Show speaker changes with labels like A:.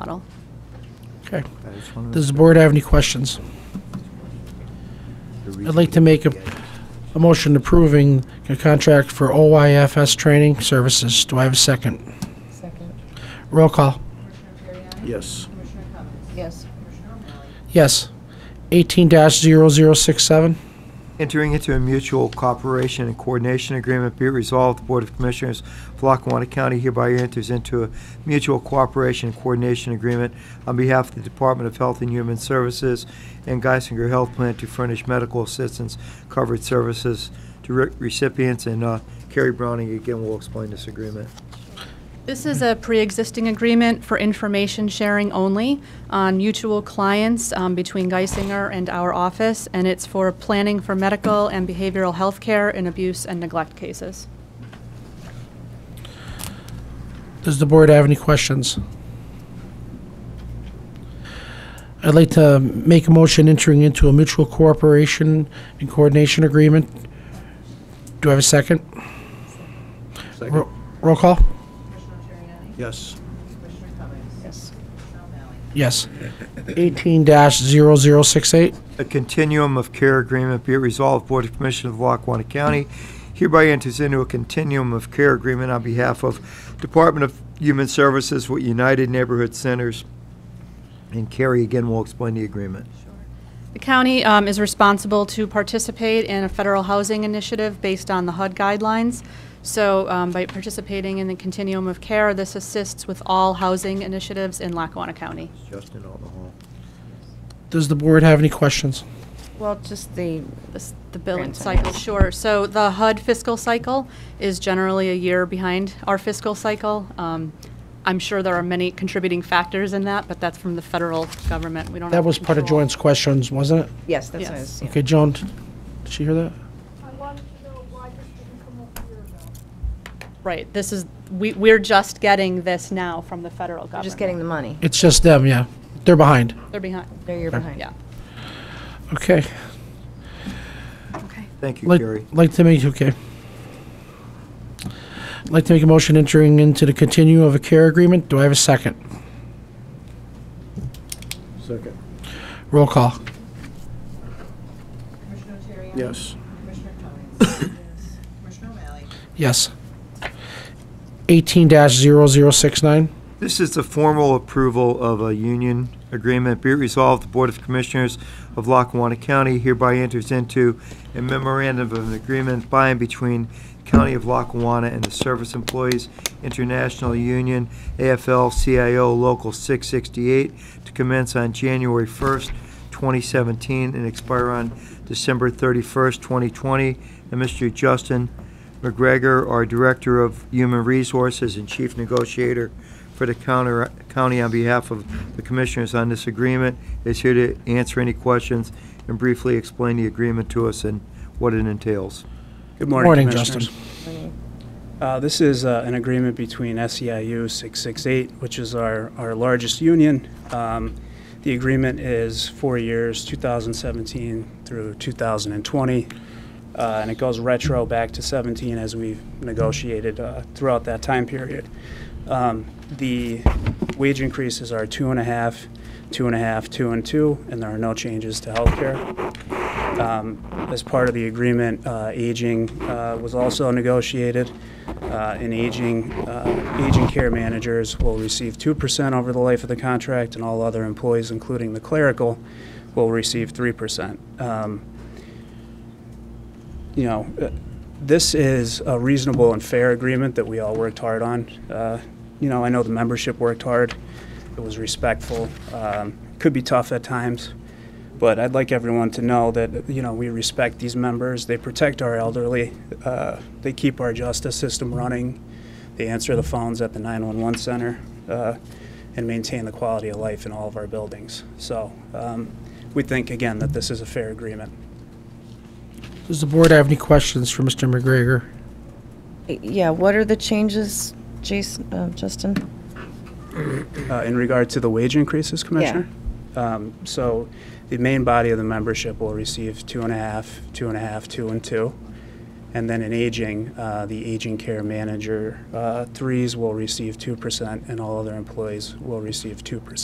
A: model.
B: Okay. Does the board have any questions? I'd like to make a, a motion approving a contract for OYFS training services. Do I have a second?
C: Second.
B: Roll call.
D: Yes.
C: Yes.
B: Yes. Eighteen dash zero zero six seven.
E: Entering into a mutual cooperation and coordination agreement, be it resolved, the Board of Commissioners of Lackawanna County hereby enters into a mutual cooperation and coordination agreement on behalf of the Department of Health and Human Services and Geisinger Health Plan to furnish medical assistance covered services to re- recipients. And uh, Carrie Browning, again, will explain this agreement.
A: This is a pre-existing agreement for information sharing only on mutual clients um, between Geisinger and our office, and it's for planning for medical and behavioral health care in abuse and neglect cases.
B: Does the board have any questions? I'd like to make a motion entering into a mutual cooperation and coordination agreement. Do I have a second?
D: Second.
B: Ro- Roll call?
D: Yes.
A: Yes.
B: Yes. Eighteen dash zero zero six eight.
E: a continuum of care agreement be it resolved, Board of Commissioners of Lackawanna County hereby enters into a continuum of care agreement on behalf of Department of Human Services with United Neighborhood Centers. And Carrie again will explain the agreement.
A: The county um, is responsible to participate in a federal housing initiative based on the HUD guidelines. So um, by participating in the continuum of care, this assists with all housing initiatives in Lackawanna County.
E: Justin on the hall.
B: Does the board have any questions?
C: Well, just the,
A: This- The billing
C: Grant
A: cycle,
C: cycle.
A: sure. So the HUD fiscal cycle is generally a year behind our fiscal cycle. Um, I'm sure there are many contributing factors in that, but that's from the federal government. We don't have
B: That was part of
A: control.
B: Joan's questions, wasn't it?
C: yes, that's what I
A: Yes.
C: was, yeah.
B: Okay, Joan, did she hear that?
F: I wanted to know why this didn't come up a year ago.
A: Right, this is, we, we're just getting this now from the federal
C: We're
A: government.
C: Just getting the money.
B: It's just them, yeah. They're behind.
A: They're behind,
C: There you're behind.
A: yeah.
B: Okay.
A: Okay.
E: Thank you,
B: Like,
E: Carrie.
B: like to make, okay. Like to make a motion entering into the continuum of a care agreement. Do I have a second?
D: Second.
B: Roll call.
D: Yes.
B: Yes. Eighteen dash zero zero six nine.
E: This is the formal approval of a union agreement. Be it resolved, the Board of Commissioners of Lackawanna County hereby enters into a memorandum of an agreement by and between County of Lackawanna and the Service Employees International Union, AFL-CIO Local 668, to commence on January 1st, 2017, and expire on December 31st, 2020. And Mr. Justin McGregor, our Director of Human Resources and Chief Negotiator for the counter- county on behalf of the commissioners on this agreement, is here to answer any questions and briefly explain the agreement to us and what it entails.
G: Good
B: Morning,
G: morning, Commissioners.
B: Justin.
G: Uh, This is uh, an agreement between E SEIU 668, which is our, our largest union. Um, The agreement is four years, 2017 through 2020, uh, and it goes retro back to 17 as we've negotiated uh, throughout that time period. Um, The wage increases are two and a half, two and a half, two and two, and there are no changes to healthcare. Um, As part of the agreement, uh, aging uh, was also negotiated, uh, and aging, uh, aging care managers will receive 2% over the life of the contract, and all other employees, including the clerical, will receive 3%. Um, You know, uh, this is a reasonable and fair agreement that we all worked hard on. Uh, You know, I know the membership worked hard, it was respectful, um, could be tough at times, but I'd like everyone to know that, you know, we respect these members. They protect our elderly. Uh, they keep our justice system running. They answer the phones at the 911 center uh, and maintain the quality of life in all of our buildings. So um, we think, again, that this is a fair agreement.
B: Does the board have any questions for Mr. McGregor?
C: Yeah, what are the changes, Jason, uh, Justin?
G: Uh, in regard to the wage increases, Commissioner? Um, so the main body of the membership will receive two and a half, two and a half, two and two. And then in aging, uh, the aging care manager uh, threes will receive 2%, and all other employees will receive 2%.